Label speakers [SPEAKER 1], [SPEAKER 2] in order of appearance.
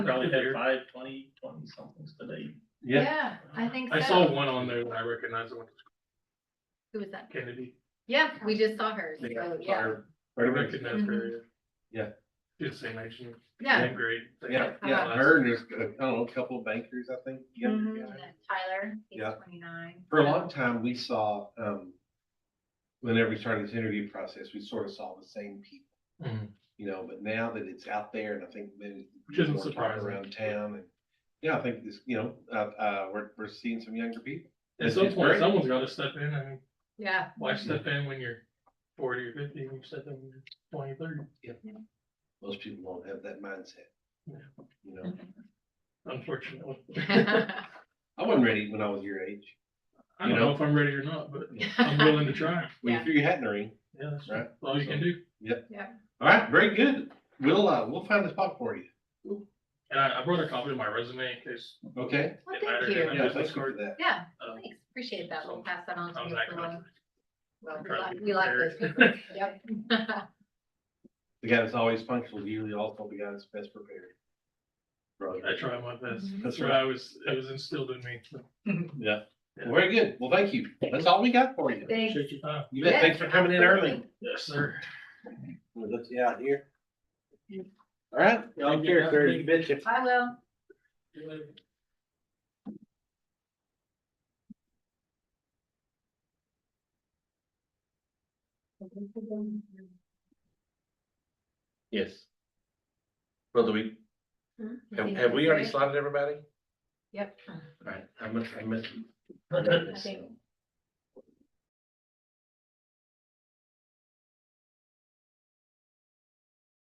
[SPEAKER 1] Probably had five, twenty, twenty somethings today.
[SPEAKER 2] Yeah,
[SPEAKER 3] I think so.
[SPEAKER 4] I saw one on there that I recognized, the one that's
[SPEAKER 3] Who was that?
[SPEAKER 4] Kennedy.
[SPEAKER 3] Yeah, we just saw her.
[SPEAKER 1] Yeah.
[SPEAKER 3] So, yeah. Mm-hmm.
[SPEAKER 4] I
[SPEAKER 2] right away.
[SPEAKER 4] recognized her.
[SPEAKER 2] Yeah.
[SPEAKER 4] She's the same age, she was
[SPEAKER 3] Yeah.
[SPEAKER 4] great.
[SPEAKER 2] Yeah, yeah, her and there's, uh, I don't know, a couple of bankers, I think. younger
[SPEAKER 3] Mhm.
[SPEAKER 2] guy.
[SPEAKER 3] And Tyler, he's
[SPEAKER 2] Yeah.
[SPEAKER 3] twenty-nine.
[SPEAKER 2] For a long time, we saw, um, whenever we started this interview process, we sort of saw the same people,
[SPEAKER 4] Mhm.
[SPEAKER 2] you know, but now that it's out there and I think maybe.
[SPEAKER 4] Which isn't
[SPEAKER 2] more talk
[SPEAKER 4] surprising.
[SPEAKER 2] Around town and, yeah, I think this, you know, uh, uh, we're, we're seeing some younger people.
[SPEAKER 4] At
[SPEAKER 2] It's-
[SPEAKER 4] some
[SPEAKER 2] it's
[SPEAKER 4] point,
[SPEAKER 2] great. Mm-hmm.
[SPEAKER 4] someone's gotta step in, I mean,
[SPEAKER 3] Yeah.
[SPEAKER 4] why step in when you're forty or fifty, when you step in when you're twenty, thirty?
[SPEAKER 2] Most people don't have that mindset.
[SPEAKER 4] Yeah.
[SPEAKER 2] You know,
[SPEAKER 4] Unfortunately,
[SPEAKER 2] I wasn't ready when I was your age.
[SPEAKER 4] I
[SPEAKER 2] You
[SPEAKER 4] don't
[SPEAKER 2] know?
[SPEAKER 4] know if I'm ready or not, but I'm willing to try,
[SPEAKER 2] When you
[SPEAKER 3] Yeah.
[SPEAKER 2] threw your hat in the ring.
[SPEAKER 4] yeah, that's
[SPEAKER 2] Right.
[SPEAKER 4] all you can do.
[SPEAKER 2] All right, very good. We'll, uh, we'll find a spot for you.
[SPEAKER 4] And I, I brought a copy of my resume in case.
[SPEAKER 2] Okay?
[SPEAKER 3] Well,
[SPEAKER 4] it mattered.
[SPEAKER 3] thank you.
[SPEAKER 4] And
[SPEAKER 2] Yeah,
[SPEAKER 4] this
[SPEAKER 2] thanks
[SPEAKER 4] is-
[SPEAKER 2] for that.
[SPEAKER 3] Yeah,
[SPEAKER 4] um,
[SPEAKER 3] thanks. Appreciate that. We'll
[SPEAKER 4] So,
[SPEAKER 3] pass that on
[SPEAKER 4] I
[SPEAKER 3] to
[SPEAKER 4] was
[SPEAKER 3] you.
[SPEAKER 4] that
[SPEAKER 3] for
[SPEAKER 4] confident.
[SPEAKER 3] one. Well, we
[SPEAKER 4] trying to
[SPEAKER 3] like-
[SPEAKER 4] be
[SPEAKER 3] we like those people. Yep.
[SPEAKER 2] The guy that's always functional is usually also the guy that's best prepared. Right.
[SPEAKER 4] I tried my best.
[SPEAKER 3] Mhm.
[SPEAKER 4] That's what I was, it was instilled in me. so.
[SPEAKER 2] Yeah. Well, Very good. Well, thank you. That's all we got for you.
[SPEAKER 3] Thanks.
[SPEAKER 4] Appreciate your time.
[SPEAKER 2] You bet. Thanks for coming in early.
[SPEAKER 4] Yes, sir.
[SPEAKER 2] We'll let you out here. All right.
[SPEAKER 4] Y'all care, sir. You
[SPEAKER 2] betcha.
[SPEAKER 3] I will.
[SPEAKER 5] Yes. Well, do we,
[SPEAKER 3] Mm-hmm.
[SPEAKER 5] have, have we already slotted everybody?
[SPEAKER 3] Yep.
[SPEAKER 5] Alright, I must, I must.
[SPEAKER 3] I think